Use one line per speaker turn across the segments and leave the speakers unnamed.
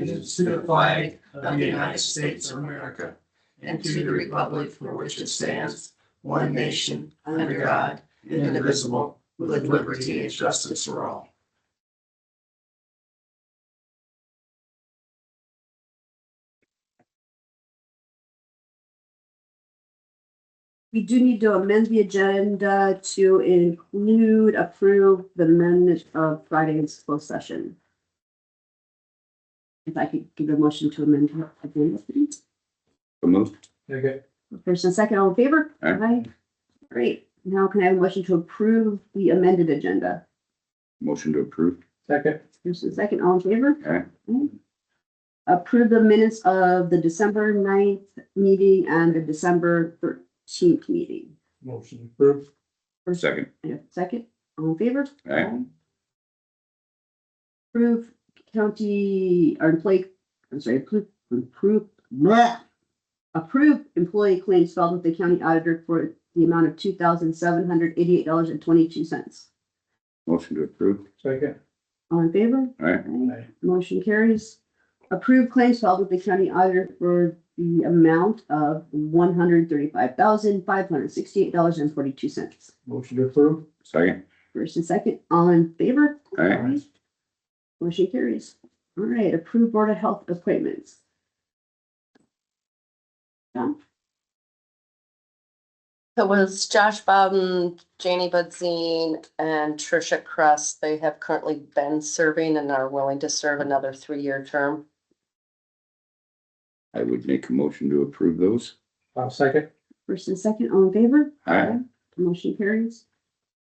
allegiance to the flag of the United States of America and to the republic for which it stands, one nation, under God, indivisible, with liberty and justice for all.
We do need to amend the agenda to include, approve the minutes of Friday's closed session. If I could give a motion to amend the agenda, please.
So moved.
Okay.
First and second, all in favor?
Aye.
Great. Now can I have a motion to approve the amended agenda?
Motion to approve.
Second.
First and second, all in favor?
Aye.
Aye. Approve the minutes of the December 9th meeting and the December thirteenth meeting.
Motion approved.
First-
Second.
Yeah, Second, all in favor?
Aye.
Approve county, or employee, I'm sorry, approve, approve, bleh. Approve employee claims filed with the county auditor for the amount of two thousand seven hundred eighty-eight dollars and twenty-two cents.
Motion to approve.
Second.
All in favor?
Aye.
Aye.
Motion carries. Approve claims filed with the county auditor for the amount of one hundred thirty-five thousand five hundred sixty-eight dollars and forty-two cents.
Motion approved.
Second.
First and second, all in favor?
Aye.
Uh,
Motion carries. All right, approved Board of Health appointments.
It was Josh Bowden, Janie Budzine, and Tricia Crust. They have currently been serving and are willing to serve another three-year term.
I would make a motion to approve those.
I'll second.
First and second, all in favor?
Aye.
Motion carries.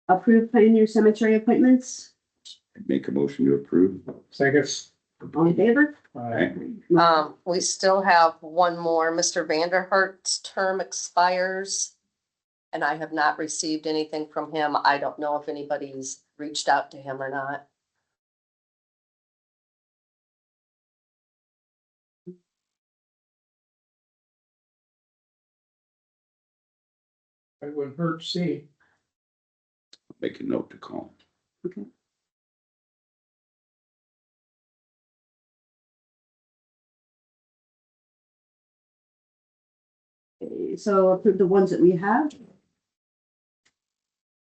Approved Pioneer Cemetery appointments,
I'd Make a motion to approve.
Second.
all in favor?
Aye.
Um, we still have one more. Mr. Vanderhart's term expires. And I have not received anything from him. I don't know if anybody's reached out to him or not.
It wouldn't hurt to see.
Make a note to call.
Okay, So approve the ones that we have.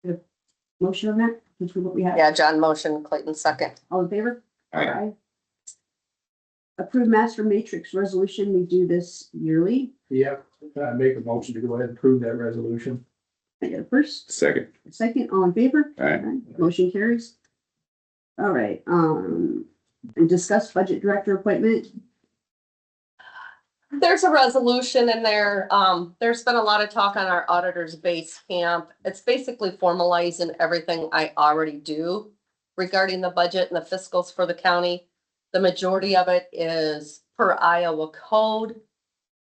The Motion on that, which is what we have.
Yeah, John motion, Clayton second.
All in favor?
Aye.
Approved master matrix resolution, we do this yearly.
Yep. I uh, make a motion to go ahead and approve that resolution.
I got a first,
Second.
a second, all in favor?
Aye.
Alright, Motion carries. All right, um, and discuss budget director appointment.
There's a resolution in there. Um, there's been a lot of talk on our auditor's base camp. It's basically formalizing everything I already do regarding the budget and the fiscals for the county. The majority of it is per Iowa code.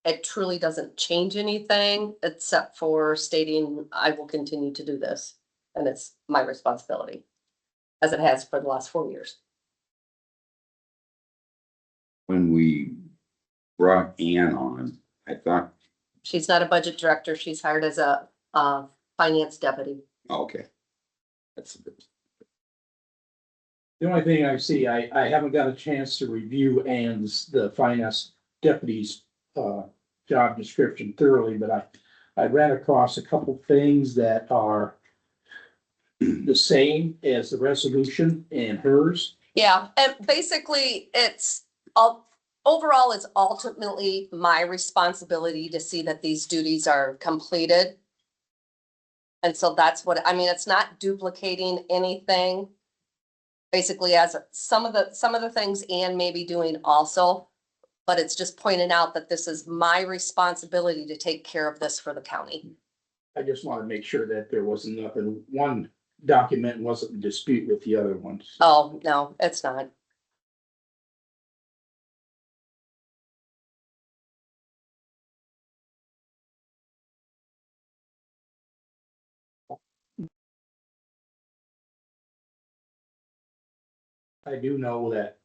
It truly doesn't change anything except for stating I will continue to do this. And it's my responsibility, as it has for the last four years.
When we brought Ann on, I thought,
She's not a budget director. She's hired as a, uh, finance deputy.
oh, okay. That's,
The only thing I see, I, I haven't got a chance to review Ann's, the finance deputy's, uh, job description thoroughly, but I, I ran across a couple things that are the same as the resolution and hers.
Yeah, and basically, it's all, overall, it's ultimately my responsibility to see that these duties are completed. And so that's what, I mean, it's not duplicating anything. Basically, as some of the, some of the things Anne may be doing also, but it's just pointing out that this is my responsibility to take care of this for the county.
I just want to make sure that there wasn't nothing, one document wasn't in dispute with the other ones.
Oh, no, it's not.
I do know that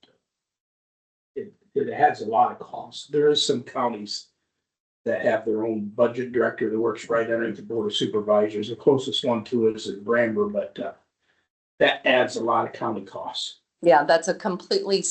it, it has a lot of costs. There is some counties that have their own budget director that works right underneath the board of supervisors. The closest one to it is in Bramber, but uh, that adds a lot of county costs.
Yeah, that's a completely